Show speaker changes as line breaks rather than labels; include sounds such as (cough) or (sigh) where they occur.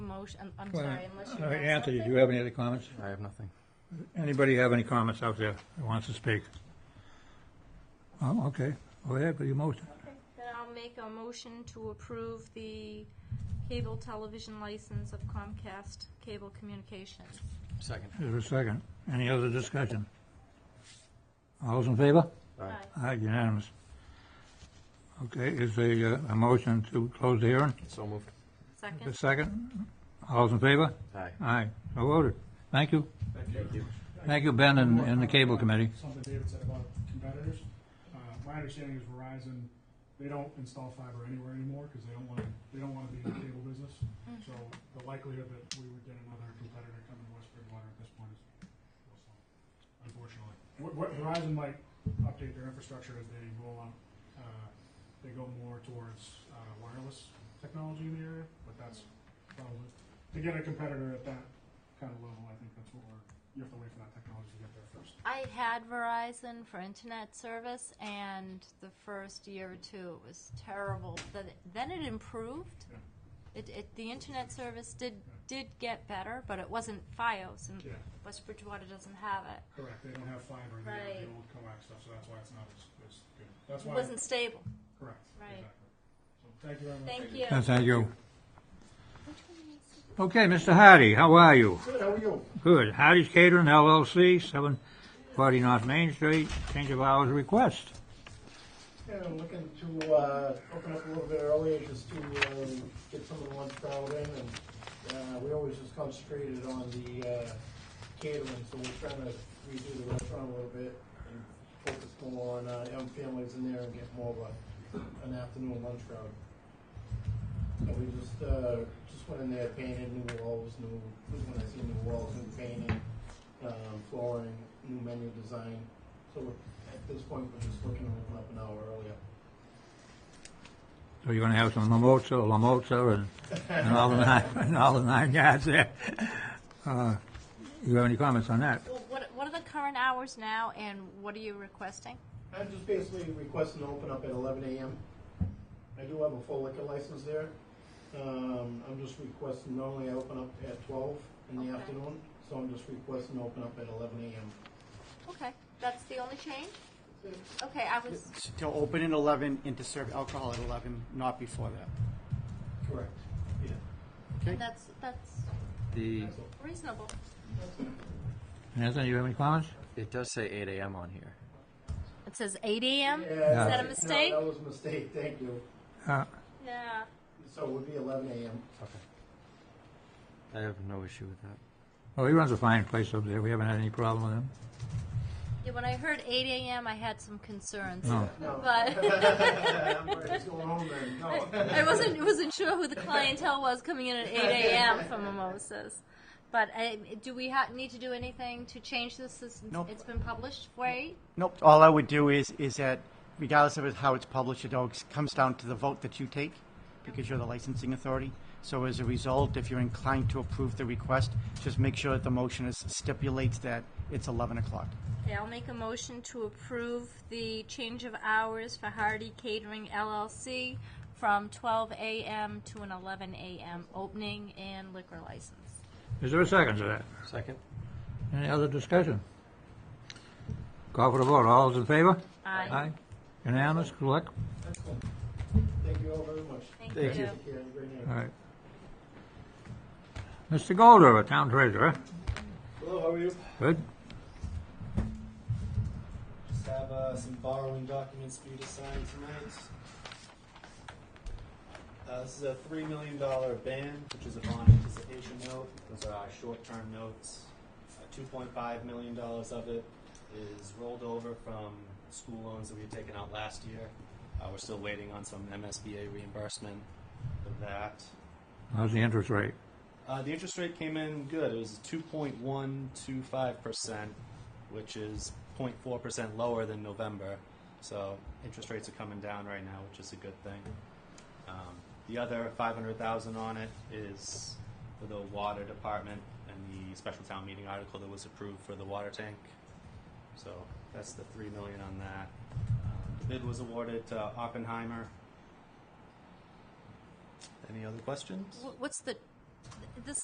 motion, I'm- I'm
Well,
sorry, unless you
uh,
have
Anthony, do
something.
you have any other comments?
I have nothing.
Anybody have any comments out there that wants to speak? Oh, okay. Go ahead, with your motion.
Okay, Then I'll make a motion to approve the cable television license of Comcast Cable Communications.
Second.
Is there a second? Any other discussion? All those in favor?
Aye.
Aye.
Aye, unanimous. Okay, is a, uh, a motion to close the hearing?
So moved.
The
Second?
second? All those in favor?
Aye.
Aye, so voted. Thank you.
Thank you.
Thank you, Ben, and, and the cable committee.
Something David said about competitors. Uh, my understanding is Verizon, they don't install fiber anywhere anymore because they don't want, they don't want to be in the cable business. So the likelihood that we would get another competitor coming to West Bridgewater at this point is, low, so, unfortunately. Wh- wh- Verizon might update their infrastructure as they roll out, uh, they go more towards, uh, wireless technology in the area, but that's probably, to get a competitor at that kind of level, I think that's what we're, you have to wait for that technology to get there first.
I had Verizon for internet service, and the first year or two, it was terrible. Then then it improved.
Yeah.
It, it, the internet service did, did get better, but it wasn't FiOS, and
Yeah.
West Bridgewater doesn't have it.
Correct, they don't have fiber, they have
Right.
the old coax stuff, so that's why it's not as, as good. That's
It
why,
wasn't stable.
correct,
Right.
exactly. So, thank you very much.
Thank you.
And thank you. Okay, Mr. Hardy, how are you?
Good, how are you?
Good. Hardy's Catering LLC, 740 North Main Street, change of hours request.
Yeah, I'm looking to uh, open up a little bit early, just to um, get some of the lunch crowd in, and uh, we always just concentrated on the uh, catering, so we're trying to redo the restaurant a little bit and focus more on uh, young families in there and get more of a, an afternoon lunch crowd. And we just, uh, just went in there, painted new walls, new, when I see new walls, new painting, um, flooring, new menu design. So we're- at this point, we're just looking to open up an hour earlier.
So you're gonna have some mimosa, la mozza, and, and all the nine, (laughs) and all the nine yards there. Uh, You have any comments on that?
Well, what, what are the current hours now, and what are you requesting?
I'm just basically requesting to open up at eleven AM. I do have a full liquor license there. Um, I'm just requesting, normally I open up at twelve in the
Okay.
afternoon, so I'm just requesting to open up at eleven AM.
Okay, that's the only change? Okay, I was,
To open at eleven and to serve alcohol at eleven, not before that.
Correct. Yeah.
Okay?
that's, that's
The,
reasonable.
Anthony, you have any comments?
it does say eight AM on here.
It says eight AM?
Yeah,
that a
no,
mistake?
That was a mistake, thank you.
Uh,
Yeah.
So it would be eleven AM.
I have no issue with that.
Well, he runs a fine place up there. We haven't had any problem with him.
Yeah, when I heard eight AM, I had some concerns,
No.
but (laughs)
(laughs)
I'm ready to go home then, no.
I wasn't, wasn't sure who the clientele was coming in at eight AM for mimosas. But I, do we ha- need to do anything to change this since
Nope.
it's been published for eight?
Nope, all I would do is, is that regardless of how it's published, it all comes down to the vote that you take because you're the licensing authority. So as a result, if you're inclined to approve the request, just make sure that the motion is stipulates that it's eleven o'clock.
Okay, I'll make a motion to approve the change of hours for Hardy Catering LLC from twelve AM to an eleven AM opening and liquor license.
Is there a second to that?
Second?
Any other discussion? Call for the vote. All those in favor?
Aye.
Unanimous, good luck.
Excellent. Thank you all very much.
Thank you.
Take care, have a great night.
All right. Mr. Golder, Town Treasurer.
Hello, how are you?
Good?
Just have uh, some borrowing documents for you to sign tonight. Uh, this is a $3 million ban, which is a bond anticipation note. Those are our short term notes. Uh, $2.5 million of it is rolled over from school loans that we had taken out last year. Uh, we're still waiting on some MSBA reimbursement for that.
How's the interest rate?
Uh, the interest rate came in good. It was 2.125%, which is 0.4% lower than November. So interest rates are coming down right now, which is a good thing. Um, the other 500,000 on it is for the water department and the special town meeting article that was approved for the water tank. So that's the 3 million on that. Um, the bid was awarded to Oppenheimer. Any other questions?
Wh- What's the this